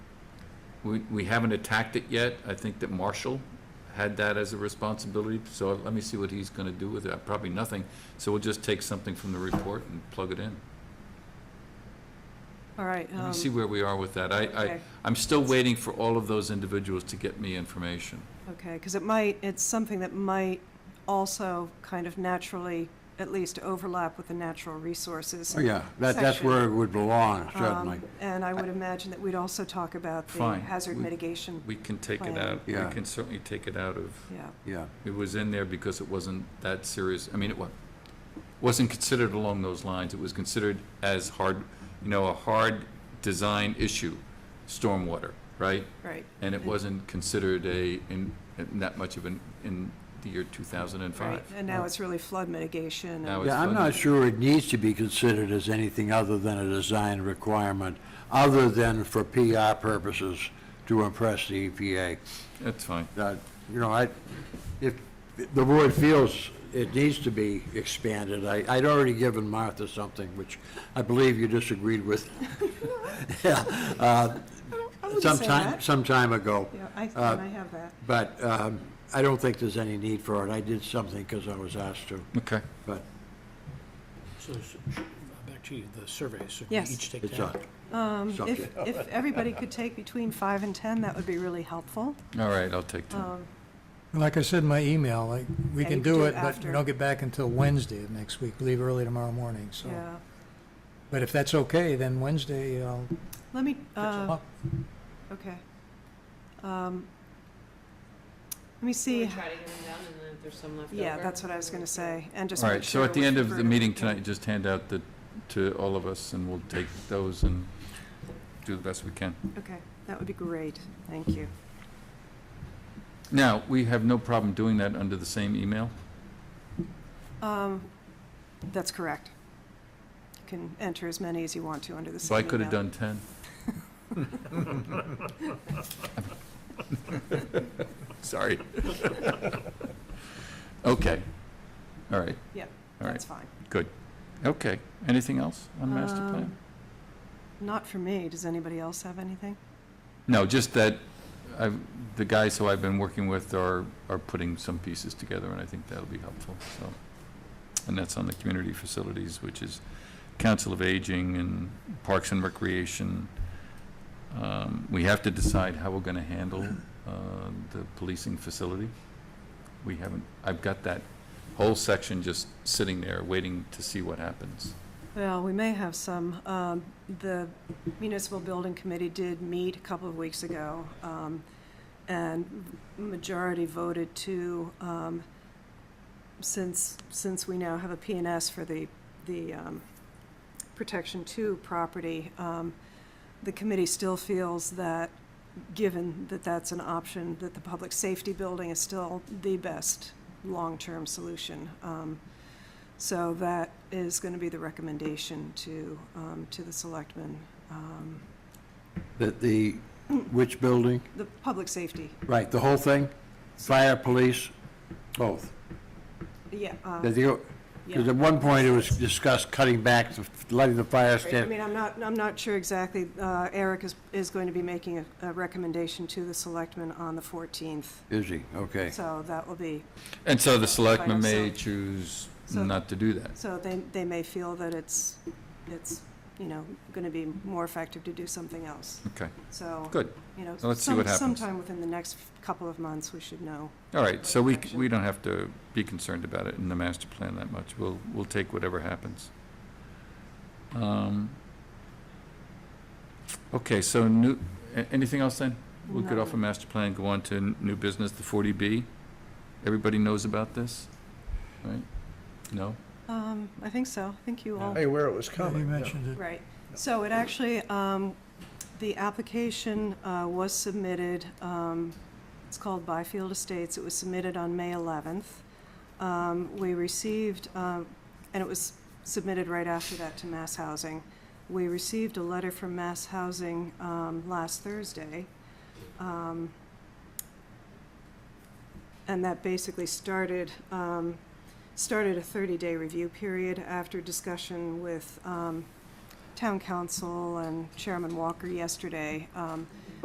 We, we haven't attacked it yet. I think that Marshall had that as a responsibility, so let me see what he's gonna do with it. Uh, Probably nothing. So we'll just take something from the report and plug it in. All right. Let um, me see where we are with that. I, I, okay. I'm still waiting for all of those individuals to get me information. Okay, because it might, it's something that might also kind of naturally, at least overlap with the natural resources. Oh, yeah, that, that's section. where it would belong, Um, certainly. And I would imagine that we'd also talk about the Fine. hazard We- mitigation, We can take it Plan. out, we Yeah. can certainly take it out of, yeah. Yeah, it was in there because it wasn't that serious. I mean, it wa, wasn't considered along those lines. It was considered as hard, you know, a hard design issue, stormwater, right? Right. And it wasn't considered a, in, in that much of an, in the year two thousand and Right. five. And now it's really flood mitigation. Now and- it's yeah, I'm flooded. not sure it needs to be considered as anything other than a design requirement, other than for PR purposes to impress the E EPA. That's fine. That, Uh, you know, I, if the board feels it needs to be expanded, I, I'd already given Martha something, which I believe you disagreed with. Yeah, uh, I wouldn't Some say time, that. some time ago. Yeah, I, and Uh, I have that. But um, I don't think there's any need for it. I did something because I was asked to, Okay. but So, s- sh- back to you, the surveys, so we Yes. each take it's that. a Um, If, subject. if everybody could take between five and 10, that would be really helpful. All right, I'll take that. Um, Like I said in my email, like, we Yeah, can you can do do it it, but after. we don't get back until Wednesday of next week, leave early tomorrow morning, so. Yeah. But if that's okay, then Wednesday, I'll pick Let me, them uh, up. okay. Um, Let me We see. try to get them done, and then if there's some left over. Yeah, that's what I was going to say, and just All make right, so sure at the we end of refer the to- meeting tonight, just hand out the, to all of us, and we'll take those and do the best we can. Okay, that would be great, thank you. Now, we have no problem doing that under the same email? Um, That's correct. You can enter as many as you want to under the So same I could have email. done 10? Sorry. Okay, all right, all right. That's fine. okay. Anything else on master plan? Um, Not for me, does anybody else have anything? No, just that I, the guys who I've been working with are, are putting some pieces together, and I think that'll be helpful, so. And that's on the community facilities, which is Council of Aging and Parks and Recreation. Um, We have to decide how we're gonna handle uh, the policing facility. We haven't, I've got that whole section just sitting there, waiting to see what happens. Well, we may have some. Um, The Municipal Building Committee did meet a couple of weeks ago, um, and majority voted to, um, since, since we now have a S for the, the um, Protection Two property, um, the committee still feels that, given that that's an option, that the public safety building is still the best long-term solution. Um, so that is going to be the recommendation to, um, to the selectmen, um, That the, which building? the public safety, Right, the whole thing? Fire, police, both. yeah. uh, yeah. Because at one point, it was discussed cutting back, the- letting the fire I stand. mean, I'm not, I'm not sure exactly, uh, Eric is, is going to be making a, a recommendation to the selectmen on the 14th, Is he? Okay. so that will be, And so the selectmen may yourself. choose So- not to do that. so they, they may feel that it's, it's, you know, going to be more effective to do something else. Okay. So. Good. You know, So let's see what some- happens. sometime within the next couple of months, we should know. All right, so we, c- Action. we don't have to be concerned about it in the master plan that much. We'll, we'll take whatever happens. Um, Okay, so new, a- anything else then? We'll get off No. of master plan, go on to n- new business, the 40B. Everybody knows about this, right? No? Um, I think so, I think you all. aware it was Yeah, You mentioned it. Right. So it actually, um, the application uh, was submitted, um, it's called Byfield Estates. It was submitted on May 11th. Um, We received, um, and it was submitted right after that to Mass Housing. We received a letter from Mass Housing um, last Thursday. um, And that basically started, um, started a 30-day review period after discussion with um, town council and Chairman Walker yesterday. Um,